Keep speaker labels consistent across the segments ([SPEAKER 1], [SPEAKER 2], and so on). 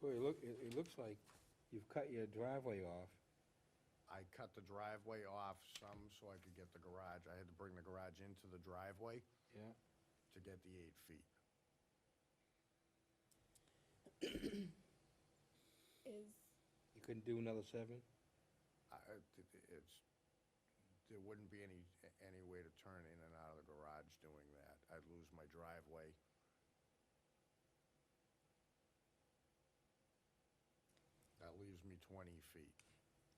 [SPEAKER 1] Well, it look, it, it looks like you've cut your driveway off.
[SPEAKER 2] I cut the driveway off some so I could get the garage. I had to bring the garage into the driveway
[SPEAKER 1] Yeah.
[SPEAKER 2] to get the eight feet.
[SPEAKER 3] Is,
[SPEAKER 1] You couldn't do another seven?
[SPEAKER 2] I, I- it- it's, there wouldn't be any, any way to turn in and out of the garage doing that. I'd lose my driveway. That leaves me twenty feet.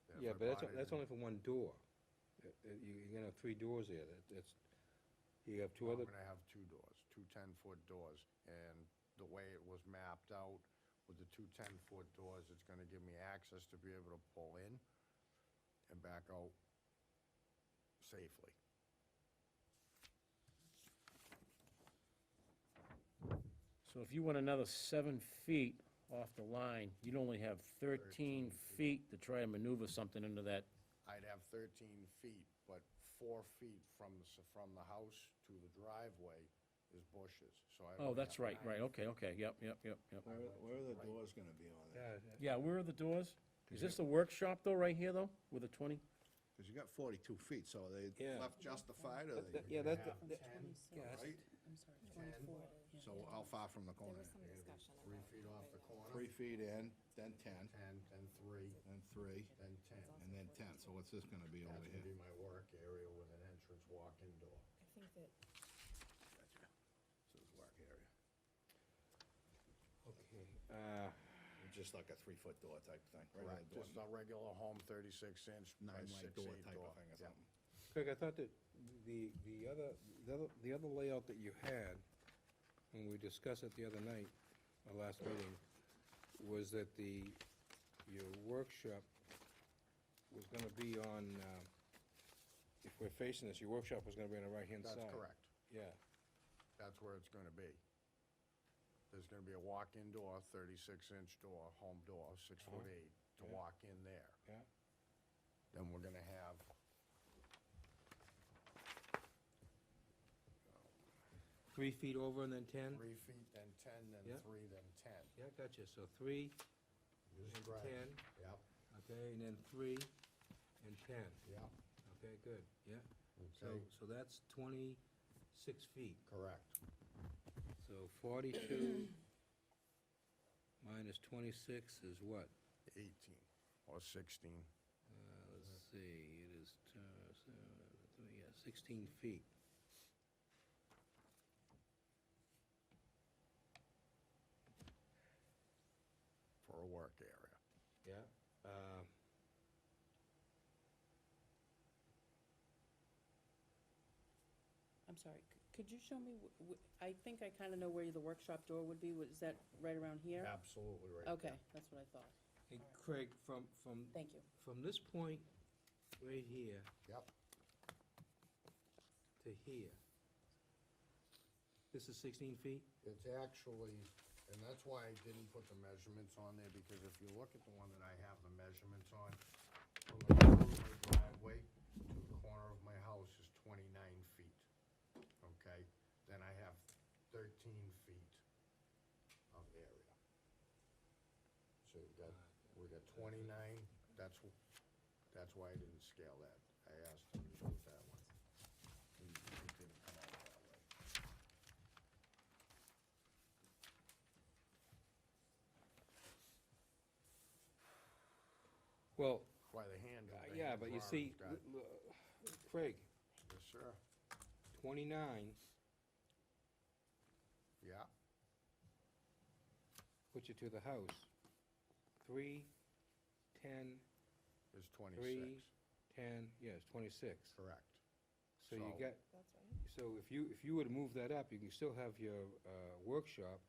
[SPEAKER 2] If
[SPEAKER 1] Yeah,
[SPEAKER 2] I
[SPEAKER 1] but that's,
[SPEAKER 2] brought it
[SPEAKER 1] that's
[SPEAKER 2] in-
[SPEAKER 1] only for one door. Uh, uh, You, you're gonna have three doors there, that, that's, you have two
[SPEAKER 2] I'm
[SPEAKER 1] other,
[SPEAKER 2] gonna have two doors, two ten-foot doors, and the way it was mapped out with the two ten-foot doors, it's gonna give me access to be able to pull in and back out safely.
[SPEAKER 4] So if you went another seven feet off the line, you'd only have
[SPEAKER 2] 13
[SPEAKER 4] thirteen feet to try and maneuver something into that.
[SPEAKER 2] I'd have thirteen feet, but four feet from the, s- from the house to the driveway is bushes, so I.
[SPEAKER 4] Oh,
[SPEAKER 2] only
[SPEAKER 4] that's
[SPEAKER 2] have
[SPEAKER 4] right,
[SPEAKER 2] nine
[SPEAKER 4] right, okay, okay, yep, yep, yep, yep.
[SPEAKER 5] Where, where are the doors gonna be on it?
[SPEAKER 1] yeah, yeah.
[SPEAKER 4] Yeah, where are the doors? Is this the workshop though, right here though, with the twenty?
[SPEAKER 5] Cause you got forty-two feet, so are they
[SPEAKER 1] Yeah.
[SPEAKER 5] left justified, or
[SPEAKER 1] That- that- yeah,
[SPEAKER 5] they,
[SPEAKER 1] that,
[SPEAKER 2] half
[SPEAKER 1] that- yeah, that's-
[SPEAKER 5] right?
[SPEAKER 3] I'm sorry, twenty-four. yeah.
[SPEAKER 5] So how far from the
[SPEAKER 3] There
[SPEAKER 5] corner?
[SPEAKER 3] was some discussion
[SPEAKER 2] Three
[SPEAKER 3] about.
[SPEAKER 2] feet off the corner,
[SPEAKER 5] Three feet in, then ten,
[SPEAKER 2] ten, then three,
[SPEAKER 5] then three,
[SPEAKER 2] then ten.
[SPEAKER 5] and then ten, so what's this gonna be
[SPEAKER 2] That's
[SPEAKER 5] over
[SPEAKER 2] gonna
[SPEAKER 5] here?
[SPEAKER 2] be my work area with an entrance walk-in door.
[SPEAKER 3] I think that
[SPEAKER 5] Gotcha. So it's work area,
[SPEAKER 1] okay, uh,
[SPEAKER 5] just like a three-foot door type thing, right?
[SPEAKER 2] Right, just a regular home, thirty-six inch by
[SPEAKER 5] Nine light
[SPEAKER 2] six
[SPEAKER 5] door
[SPEAKER 2] eight
[SPEAKER 5] type
[SPEAKER 2] door.
[SPEAKER 5] of thing or
[SPEAKER 2] Yeah.
[SPEAKER 5] something.
[SPEAKER 1] Craig, I thought that the, the other, the other, the other layout that you had, when we discussed it the other night, our last meeting, was that the, your workshop was gonna be on, um, if we're facing this, your workshop was gonna be on the right-hand side.
[SPEAKER 2] That's correct.
[SPEAKER 1] Yeah,
[SPEAKER 2] That's where it's gonna be. There's gonna be a walk-in door, thirty-six inch door, home door, six
[SPEAKER 5] Uh-huh.
[SPEAKER 2] foot eight, to
[SPEAKER 1] Yeah.
[SPEAKER 2] walk in there.
[SPEAKER 1] yeah,
[SPEAKER 2] Then we're gonna have,
[SPEAKER 1] three feet over and then ten?
[SPEAKER 2] three feet, then ten, then
[SPEAKER 1] Yeah.
[SPEAKER 2] three, then ten.
[SPEAKER 1] Yeah, gotcha, so three,
[SPEAKER 2] Use
[SPEAKER 1] And
[SPEAKER 2] grass.
[SPEAKER 1] 10.
[SPEAKER 2] Yep,
[SPEAKER 1] okay, and then three, and ten,
[SPEAKER 2] yep,
[SPEAKER 1] okay, good, yeah. So,
[SPEAKER 2] okay,
[SPEAKER 1] so that's twenty-six feet.
[SPEAKER 2] correct.
[SPEAKER 1] So forty-two minus twenty-six is what?
[SPEAKER 2] Eighteen or sixteen.
[SPEAKER 1] Uh, let's see, it is, uh, s- uh, three, yeah, sixteen feet.
[SPEAKER 2] for a work area.
[SPEAKER 1] Yeah. Um,
[SPEAKER 6] I'm sorry, c- could you show me, wh- wh- I think I kind of know where the workshop door would be, was that right around here?
[SPEAKER 2] Absolutely right.
[SPEAKER 6] Okay, that's what I thought,
[SPEAKER 1] And Craig, from, from,
[SPEAKER 6] thank you.
[SPEAKER 1] from this point right here
[SPEAKER 2] Yep,
[SPEAKER 1] to here, this is sixteen feet?
[SPEAKER 2] it's actually, and that's why I didn't put the measurements on there, because if you look at the one that I have the measurements on, from the corner of my driveway to the corner of my house is twenty-nine feet, okay? Then I have thirteen feet of area. So you got, we got twenty-nine, that's, wh- that's why I didn't scale that. I asked him to do it that way. And It didn't come out that way.
[SPEAKER 1] Well,
[SPEAKER 2] By the hand.
[SPEAKER 1] uh, yeah, but you see, l- l- Craig,
[SPEAKER 2] Yes, sir.
[SPEAKER 1] twenty-nine,
[SPEAKER 2] Yeah,
[SPEAKER 1] puts you to the house. Three, ten,
[SPEAKER 2] it's
[SPEAKER 1] three,
[SPEAKER 2] twenty-six,
[SPEAKER 1] ten, yes, twenty-six.
[SPEAKER 2] correct.
[SPEAKER 1] So you
[SPEAKER 2] So-
[SPEAKER 1] got,
[SPEAKER 3] That's right.
[SPEAKER 1] So if you, if you were to move that up, you can still have your uh, workshop,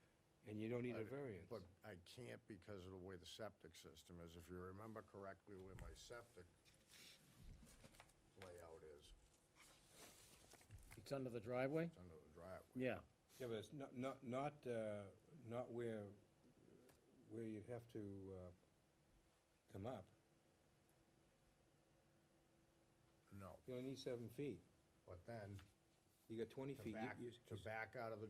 [SPEAKER 1] and you don't need a
[SPEAKER 2] I'd-
[SPEAKER 1] variance.
[SPEAKER 2] But I can't because of the way the septic system is. If you remember correctly where my septic layout is,
[SPEAKER 4] It's under the driveway?
[SPEAKER 2] it's under the driveway.
[SPEAKER 4] Yeah,
[SPEAKER 1] Yeah, but it's not, not, not, uh, not where, where you'd have to uh, come up.
[SPEAKER 2] No,
[SPEAKER 1] You only need seven feet.
[SPEAKER 2] but then
[SPEAKER 1] You got twenty
[SPEAKER 2] to
[SPEAKER 1] feet. You-
[SPEAKER 2] back,
[SPEAKER 1] you-
[SPEAKER 2] to back out of the